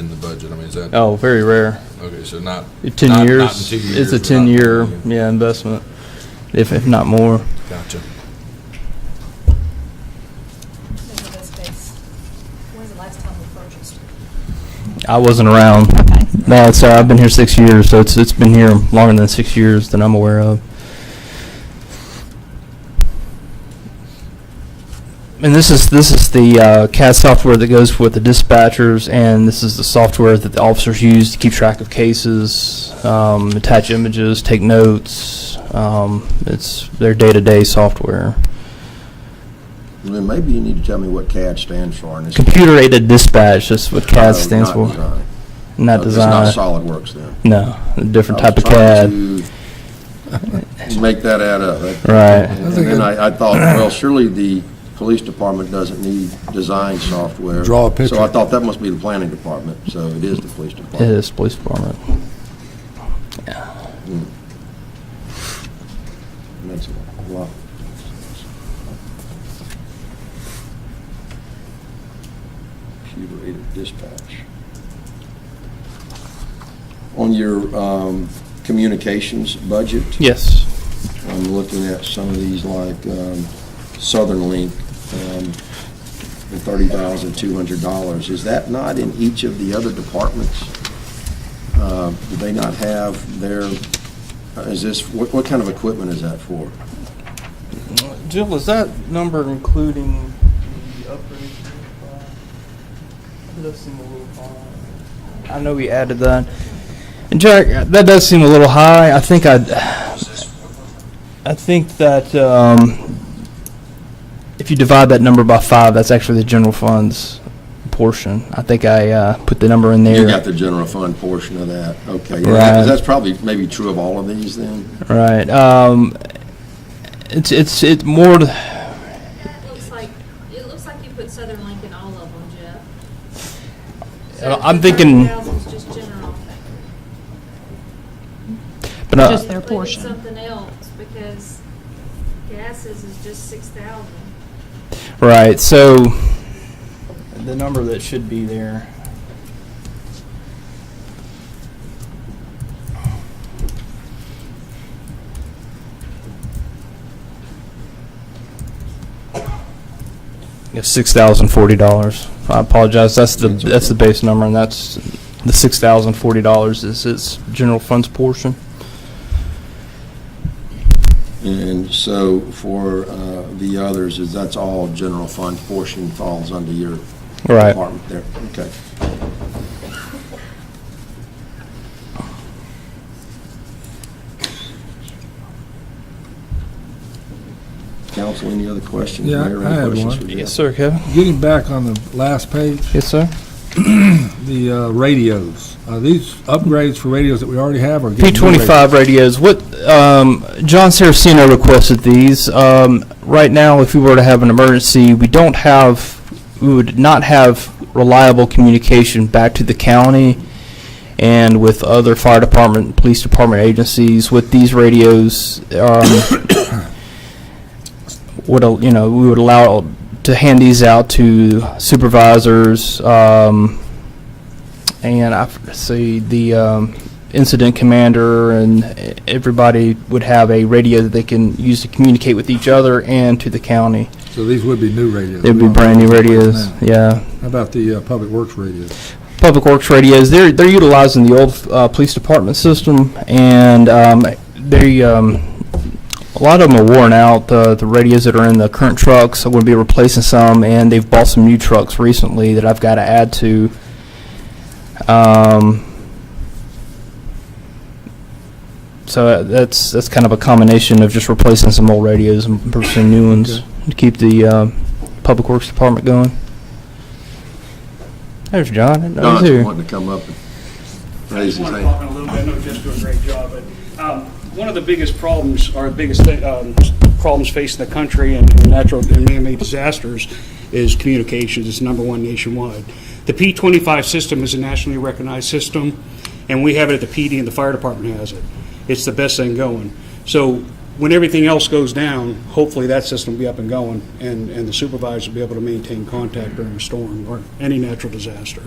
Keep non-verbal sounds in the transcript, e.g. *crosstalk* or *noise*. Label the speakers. Speaker 1: budget? I mean, is that,
Speaker 2: Oh, very rare.
Speaker 1: okay, so not, Not- not
Speaker 2: Ten
Speaker 1: in
Speaker 2: years.
Speaker 1: two years,
Speaker 2: It's a
Speaker 1: but not-
Speaker 2: ten-year, yeah, investment, if, if not more.
Speaker 1: gotcha.
Speaker 3: Maybe that's base. When's the last time we purchased?
Speaker 2: I wasn't around.
Speaker 3: Okay.
Speaker 2: No, it's, uh, I've been here six years, so it's, it's been here longer than six years that I'm aware of. And this is, this is the uh, CAD software that goes with the dispatchers, and this is the software that the officers use to keep track of cases, um, attach images, take notes. Um, It's their day-to-day software.
Speaker 4: Then maybe you need to tell me what CAD stands for. and it's-
Speaker 2: Computer-aided dispatch, that's what CAD
Speaker 4: No,
Speaker 2: stands
Speaker 4: uh, not
Speaker 2: for.
Speaker 4: design.
Speaker 2: Not
Speaker 4: No, It's
Speaker 2: design.
Speaker 4: not SolidWorks then.
Speaker 2: No, a different
Speaker 4: I was
Speaker 2: type of
Speaker 4: trying
Speaker 2: CAD.
Speaker 4: to Make that add up. That-
Speaker 2: Right.
Speaker 4: And then I, I thought, well, surely the police department doesn't need design software.
Speaker 5: Draw a
Speaker 4: So I
Speaker 5: picture.
Speaker 4: thought that must be the planning department, so it is the police
Speaker 2: It
Speaker 4: department.
Speaker 2: is police department.
Speaker 4: Makes a lot. Computer aided dispatch. On your um, communications budget?
Speaker 2: Yes.
Speaker 4: I'm looking at some of these like um, Southern Link, um, the $30,200. Is that not in each of the other departments? Uh, Do they not have their, is this, what, what kind of equipment is that for?
Speaker 2: Jill, is that number including the upgrades? It does seem a little high. I know we added that. And Jack, that does seem a little high. I think I, I think that um, if you divide that number by five, that's actually the general funds portion. I think I uh, put the number in there.
Speaker 4: You got the general fund portion of that, okay. Yeah,
Speaker 2: Right.
Speaker 4: That's probably, maybe true of all of these then?
Speaker 2: Right. Um, it's it's it's more. to-
Speaker 3: It looks like, it looks like you put Southern Link in all of them, Jeff.
Speaker 2: Uh, I'm thinking-
Speaker 3: So the 30,000 is just general.
Speaker 2: But uh, I-
Speaker 6: Just their
Speaker 3: Look at
Speaker 6: portion.
Speaker 3: Something else, because gases is just six thousand.
Speaker 2: Right, so. The number that should be there. It's six thousand forty dollars. I apologize, that's the,
Speaker 4: That's okay.
Speaker 2: that's the base number, and that's, the six thousand forty dollars is its general funds portion.
Speaker 4: And so for uh, the others, is that's all general fund portion falls under your
Speaker 2: Right.
Speaker 4: department there? Okay. Council, any other questions?
Speaker 5: Yeah,
Speaker 4: Mayor,
Speaker 5: I
Speaker 4: any
Speaker 5: had
Speaker 4: questions
Speaker 5: one.
Speaker 4: for Jeff?
Speaker 2: Yes, sir, Kevin?
Speaker 5: Getting back on the last page,
Speaker 2: Yes, sir.
Speaker 5: the uh, radios, are these upgrades for radios that we already have or?
Speaker 2: P
Speaker 5: getting new radios?
Speaker 2: twenty-five radios, what, um, John Saraceno requested these. Um, right now, if we were to have an emergency, we don't have, we would not have reliable communication back to the county and with other fire department, police department agencies. With these radios, um, *coughs* would, al- you know, we would allow to hand these out to supervisors, um, and I f- see the, um, incident commander and everybody would have a radio that they can use to communicate with each other and to the county.
Speaker 5: So these would be new radios?
Speaker 2: They'd be brand new radios, yeah.
Speaker 5: How about the uh, public works radios?
Speaker 2: Public Works radios, they're, they're utilizing the old, uh, police department system and, um, they, um, a lot of them are worn out, uh, the, the radios that are in the current trucks, I'm gonna be replacing some and they've bought some new trucks recently that I've gotta add to. Um, so uh, that's, that's kind of a combination of just replacing some old radios and purchasing new ones
Speaker 5: Okay.
Speaker 2: to keep the, uh, Public Works Department going. There's John. I didn't know he was
Speaker 4: Don's
Speaker 2: here.
Speaker 4: wanting to come up and
Speaker 7: I
Speaker 4: raise his
Speaker 7: just want to
Speaker 4: hand.
Speaker 7: talk in a little bit, I know Jeff's doing a great job, but um, one of the biggest problems, or biggest thi- um, problems facing the country and and natural and man-made disasters is communications, it's number one nationwide. The P-25 system is a nationally recognized system, and we have it at the PD and the fire department has it. It's the best thing going. So when everything else goes down, hopefully that system will be up and going, and and the supervisors will be able to maintain contact during a storm or any natural disaster.